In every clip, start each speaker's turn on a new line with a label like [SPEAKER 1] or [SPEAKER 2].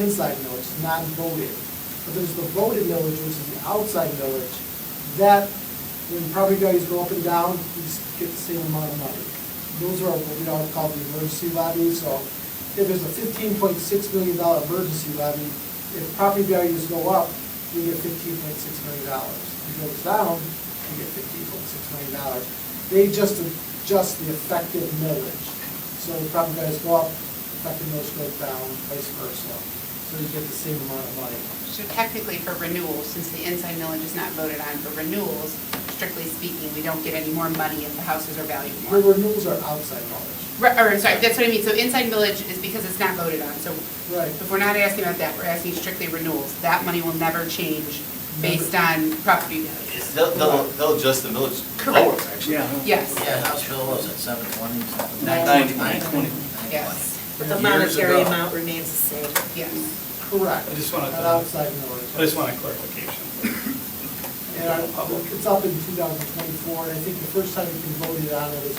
[SPEAKER 1] inside millage, not voted. But there's the voted millage, which is the outside millage, that, when property values go up and down, you just get the same amount of money. Those are what we don't call the emergency levy, so if there's a fifteen point six million dollar emergency levy, if property values go up, you get fifteen point six million dollars. If it goes down, you get fifteen point six million dollars. They just adjust the effective millage. So the property values go up, effective millage goes down, vice versa. So you get the same amount of money.
[SPEAKER 2] So technically for renewals, since the inside millage is not voted on for renewals, strictly speaking, we don't get any more money if the houses are valued
[SPEAKER 1] Your
[SPEAKER 2] more.
[SPEAKER 1] renewals are outside millage.
[SPEAKER 2] Re- Or, sorry, that's what I mean, so inside millage is because it's not voted on, so
[SPEAKER 1] Right.
[SPEAKER 2] if we're not asking about that, we're asking strictly renewals. That money will never change based on property values.
[SPEAKER 3] They'll, they'll, they'll adjust the millage lower,
[SPEAKER 2] Correct.
[SPEAKER 3] actually.
[SPEAKER 4] Yeah.
[SPEAKER 2] Yes,
[SPEAKER 5] Yeah, House Bill was at seven twenty, something.
[SPEAKER 2] Nine
[SPEAKER 4] twenty.
[SPEAKER 5] Nine twenty.
[SPEAKER 2] yes,
[SPEAKER 6] But the
[SPEAKER 5] Years
[SPEAKER 6] monetary
[SPEAKER 5] ago.
[SPEAKER 6] amount remains the same.
[SPEAKER 2] yes.
[SPEAKER 1] Correct.
[SPEAKER 4] I just wanted
[SPEAKER 1] Not
[SPEAKER 4] to-
[SPEAKER 1] outside millage.
[SPEAKER 4] I just want a clarification.
[SPEAKER 1] And our public, it's up in two thousand twenty-four, and I think the first time you can vote it on it was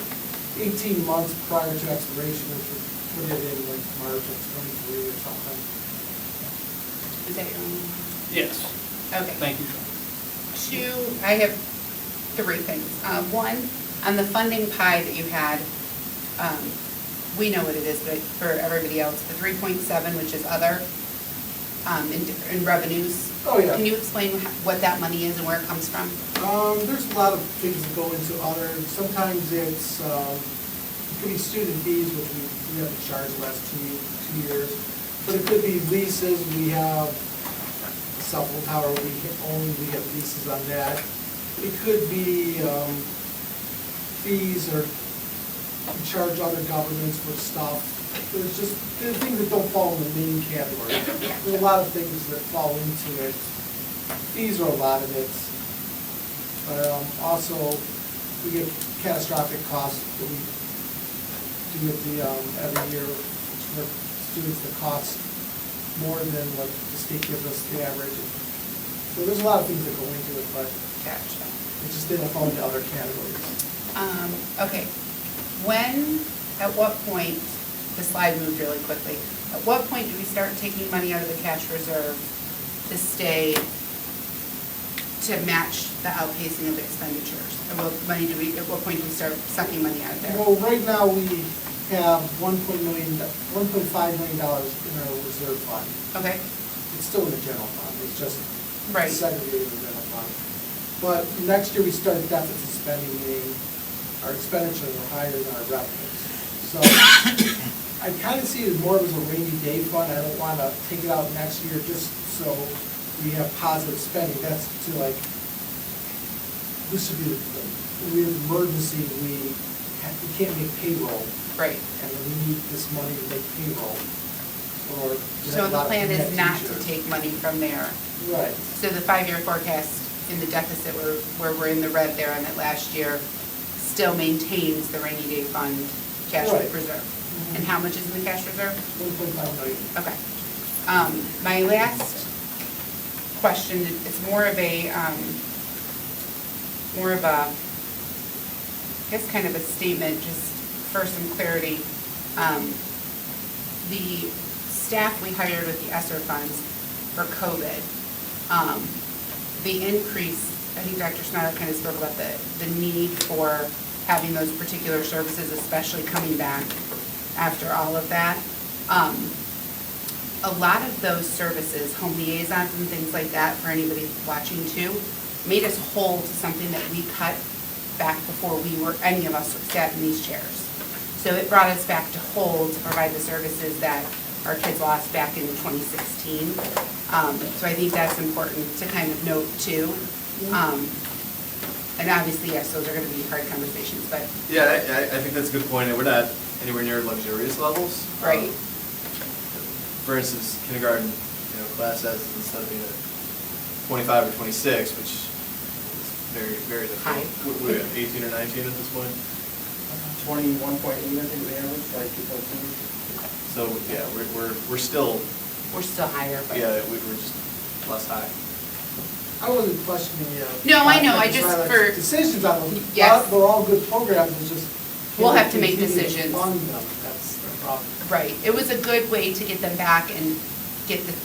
[SPEAKER 1] eighteen months prior to expiration, which would put it in like March of twenty-three or something.
[SPEAKER 2] Is that your own?
[SPEAKER 4] Yes,
[SPEAKER 2] Okay.
[SPEAKER 4] thank you, Sean.
[SPEAKER 2] Two, I have three things. Uh, One, on the funding pie that you had, um, we know what it is, but for everybody else, the 3.7, which is other, um, in in revenues.
[SPEAKER 1] Oh, yeah.
[SPEAKER 2] Can you explain wh- what that money is and where it comes from?
[SPEAKER 1] Um, there's a lot of things that go into other, sometimes it's, um, it could be student fees, which we, we haven't charged the last two, two years. But it could be leases, we have cell phone tower, we can only, we have leases on that. It could be, um, fees or we charge other governments for stuff. There's just, there are things that don't fall in the main category. There are a lot of things that fall into it. Fees are a lot of it. But um, also, we get catastrophic costs that we do with the, um, every year, which for students, the cost more than what the state gives us the average. So there's a lot of things that go into it, but
[SPEAKER 2] Gotcha.
[SPEAKER 1] it just didn't fall into other categories.
[SPEAKER 2] Um, Okay. When, at what point, the slide moved really quickly, at what point do we start taking money out of the cash reserve to stay, to match the outpacing of expenditures? At what money do we, at what point do we start sucking money out of there?
[SPEAKER 1] Well, right now, we have one point million, one point five million dollars in our reserve fund.
[SPEAKER 2] Okay,
[SPEAKER 1] It's still in the general fund, it's just
[SPEAKER 2] Right.
[SPEAKER 1] segregated in the general fund. But next year, we start deficit spending, meaning our expenditures are higher than our revenues. So I kind of see it more as a rainy day fund, I don't want to take it out next year just so we have positive spending. That's to like, this would be, the- we have emergency, we, ha- we can't make payroll,
[SPEAKER 2] great.
[SPEAKER 1] and we need this money to make payroll, or. we
[SPEAKER 2] So
[SPEAKER 1] have a
[SPEAKER 2] the
[SPEAKER 1] lot of
[SPEAKER 2] plan is
[SPEAKER 1] net
[SPEAKER 2] not to
[SPEAKER 1] teachers.
[SPEAKER 2] take money from there.
[SPEAKER 1] Right.
[SPEAKER 2] So the five-year forecast in the deficit where, where we're in the red there on that last year still maintains the rainy day fund cash
[SPEAKER 1] Right.
[SPEAKER 2] reserve. And how much is in the cash reserve?
[SPEAKER 1] One point five million.
[SPEAKER 2] Okay. Um, My last question, it's more of a, um, more of a, I guess kind of a statement, just for some clarity. Um, The staff we hired with the ESSER funds for COVID, um, the increase, I think Dr. Schneider kind of spoke about the, the need for having those particular services, especially coming back after all of that. Um, a lot of those services, home liaisons and things like that, for anybody watching too, made us whole to something that we cut back before we were, any of us sat in these chairs. So it brought us back to whole to provide the services that our kids lost back in 2016. Um, So I think that's important to kind of note too. Um, And obviously, yes, those are going to be hard conversations, but,
[SPEAKER 3] Yeah, I, I I think that's a good point, and we're not anywhere near luxurious levels. Um,
[SPEAKER 2] right,
[SPEAKER 3] For instance, kindergarten, you know, class sizes instead of being at twenty-five or twenty-six, which is very, very difficult.
[SPEAKER 2] High.
[SPEAKER 3] What- What, are we at, eighteen or nineteen at this point?
[SPEAKER 5] Twenty-one point eight, I think, the average, like two point two.
[SPEAKER 3] So, yeah, we're, we're, we're still,
[SPEAKER 2] we're still higher, but.
[SPEAKER 3] yeah, we- we're just less high.
[SPEAKER 1] I wasn't questioning you.
[SPEAKER 2] No, I know, I just for-
[SPEAKER 1] Decisions on them.
[SPEAKER 2] Yes.
[SPEAKER 1] They're all good programs, it's just. can
[SPEAKER 2] We'll
[SPEAKER 1] we
[SPEAKER 2] have to make
[SPEAKER 1] continue
[SPEAKER 2] decisions.
[SPEAKER 1] Fund them, that's the problem.
[SPEAKER 2] Right, it was a good way to get them back and get the